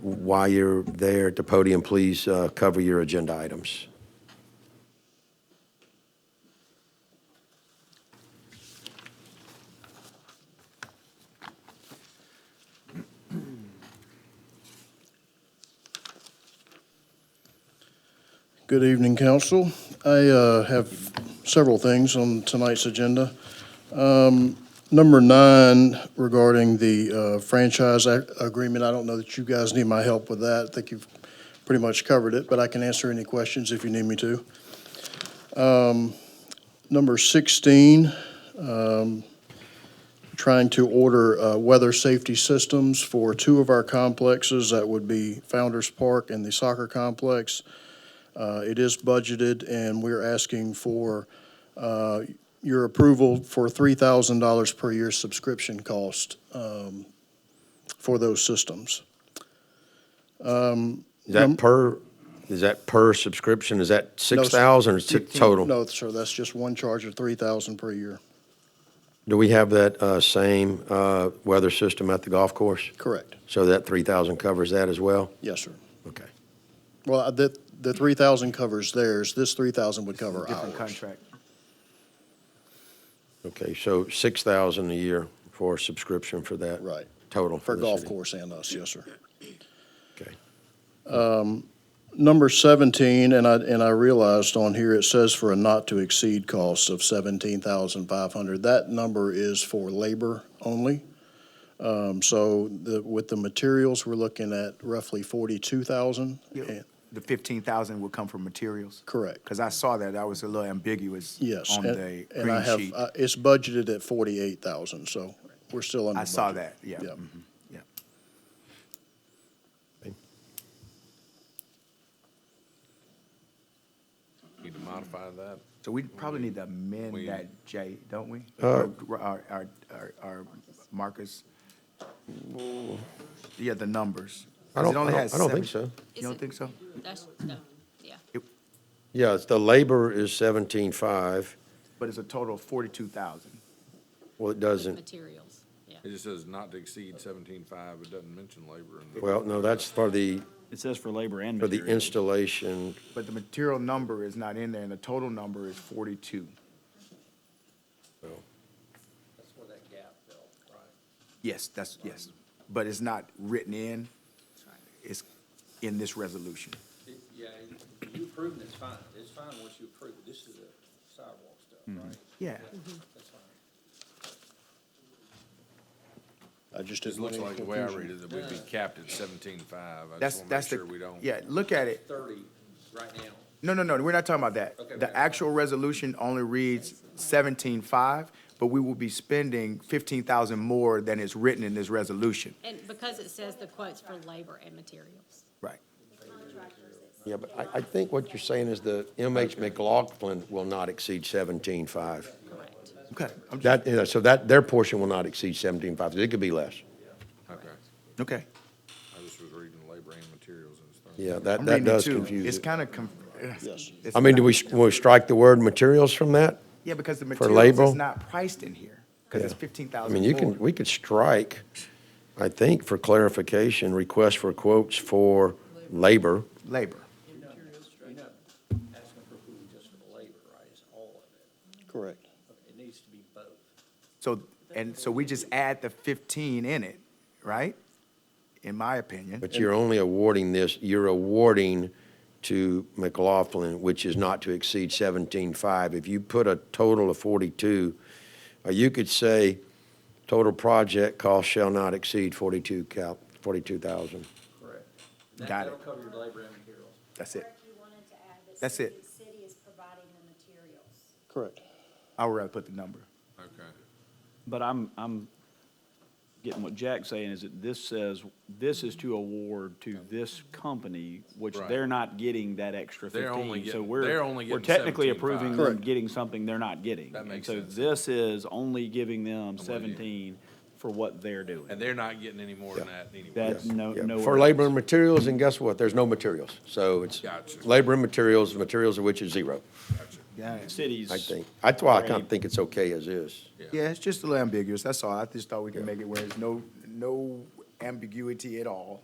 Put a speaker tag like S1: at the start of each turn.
S1: while you're there at the podium, please uh, cover your agenda items.
S2: Good evening, council. I uh, have several things on tonight's agenda. Um, Number nine regarding the uh, franchise ac- agreement, I don't know that you guys need my help with that. I think you've pretty much covered it, but I can answer any questions if you need me to. Um, Number 16, um, trying to order uh, weather safety systems for two of our complexes. That would be Founder's Park and the soccer complex. Uh, It is budgeted, and we're asking for uh, your approval for $3,000 per year subscription cost um, for those systems. Um,
S1: Is
S2: Num-
S1: that per, is that per subscription? Is that
S2: No, sir.
S1: 6,000 or is it total?
S2: No, sir, that's just one charge of $3,000 per year.
S1: Do we have that uh, same uh, weather system at the golf course?
S2: Correct.
S1: So that 3,000 covers that as well?
S2: Yes, sir.
S1: Okay.
S2: Well, uh, the, the 3,000 covers theirs. This 3,000 would cover
S3: Different
S2: ours.
S3: contract.
S1: Okay, so 6,000 a year for subscription for that?
S2: Right,
S1: Total?
S2: for
S1: the
S2: golf
S1: city.
S2: course and us, yes, sir.
S1: Okay.
S2: Number 17, and I, and I realized on here, it says for a not-to-exceed cost of 17,500. That number is for labor only. Um, So the, with the materials, we're looking at roughly 42,000.
S3: Yeah.
S2: And-
S3: The fifteen thousand would come from materials?
S2: Correct,
S3: Because I saw that, I was a little ambiguous
S2: yes.
S3: on
S2: and-
S3: the
S2: And I
S3: green
S2: have,
S3: sheet.
S2: uh, it's budgeted at 48,000, so we're still under
S3: I saw
S2: budget.
S3: that, yeah.
S2: Yeah.
S3: mhm, Yeah.
S4: Need to modify that.
S3: So we probably need to amend
S4: We-
S3: that, Jay, don't we?
S1: Uh,
S3: Or- Our, our, our, our markers? Yeah, the numbers. 'Cause
S1: I don't-
S3: it only
S1: I don't-
S3: has
S1: I don't think
S3: seven-
S1: so.
S3: You don't think so?
S5: That's, no, yeah.
S1: Yeah, it's- the labor is 17.5.
S3: But it's a total of forty-two thousand.
S1: Well, it doesn't,
S5: Materials, yeah.
S4: It just says not to exceed seventeen-five, it doesn't mention labor. in the-
S1: well, no, that's for the,
S6: It says for labor and
S1: for the
S6: materials.
S1: installation.
S3: But the material number is not in there, and the total number is forty-two. Yes, that's, yes, but it's not written in, it's in this resolution.
S7: Yeah, you approve and it's fine. It's fine once you approve. This is a sidewalk stuff,
S3: Mm-hmm.
S7: right?
S3: Yeah.
S7: That's fine.
S2: I just
S4: Just
S2: didn't want
S4: looks
S2: any
S4: like the way I
S2: confusion.
S4: read it, that we'd be capped at seventeen-five. I
S3: That's,
S4: just wanna make
S3: that's
S4: sure
S3: the,
S4: we don't.
S3: yeah, look at it.
S7: Thirty right now.
S3: No, no, no, we're not talking about that.
S7: Okay,
S3: The
S7: okay.
S3: actual resolution only reads seventeen-five, but we will be spending fifteen thousand more than is written in this resolution.
S5: And because it says the quotes for labor and materials.
S3: Right.
S1: Yeah, but I, I think what you're saying is the MH McLaughlin will not exceed 17.5.
S5: Correct.
S3: Okay, I'm just,
S1: That, yeah, so that, their portion will not exceed 17.5, it could be less.
S4: Okay,
S3: okay.
S4: I just was reading labor and materials and stuff.
S1: Yeah,
S3: I'm
S1: that, that
S3: reading it
S1: does
S3: too.
S1: confuse
S3: It's
S1: it.
S3: kind of conf.
S2: Yes.
S3: it's
S1: I mean, do
S3: not-
S1: we, will we strike the word materials from that?
S3: Yeah, because the
S1: for
S3: materials
S1: labor?
S3: is not priced in here, because it's
S1: Yeah.
S3: fifteen
S1: I
S3: thousand
S1: mean, you can,
S3: more.
S1: we could strike, I think, for clarification, request for quotes for labor.
S3: Labor,
S7: You're not, you're not asking for approval just for the labor, right? It's all of
S2: Correct.
S7: it. It needs to be both.
S3: so, and so we just add the fifteen in it, right? In my opinion.
S1: But you're only awarding this, you're awarding to McLaughlin, which is not to exceed seventeen-five. If you put a total of forty-two, or you could say, total project cost shall not exceed forty-two cal, forty-two thousand.
S7: Correct. That-
S3: Got it.
S7: That'll cover your labor and materials.
S3: That's it.
S8: Correct, you wanted to add that
S3: That's it.
S8: city- City is providing the materials.
S2: Correct.
S3: I would rather put the number.
S4: Okay.
S6: But I'm, I'm getting what Jack's saying is that this says, this is to award to this company, which
S4: Right.
S6: they're not getting that extra
S4: They're only
S6: fifteen. So
S4: getting-
S6: we're
S4: they're only
S6: We're
S4: getting
S6: technically
S4: 17.5.
S6: approving them
S2: Correct.
S6: getting something they're not getting.
S4: That
S6: And
S4: makes sense.
S6: So this is only giving them
S4: you.
S6: seventeen for what they're doing.
S4: And they're not getting any more than that anyway.
S6: That's no,
S1: Yeah,
S6: no.
S1: For labor and materials, and guess what? There's no materials. So it's
S4: Gotcha.
S1: labor and materials, materials of which is zero,
S6: Cities.
S1: I think. That's why I kind
S6: Great.
S1: of think it's okay as is.
S3: Yeah, it's just a little ambiguous, that's all. I just thought we could make it where there's no, no ambiguity at all.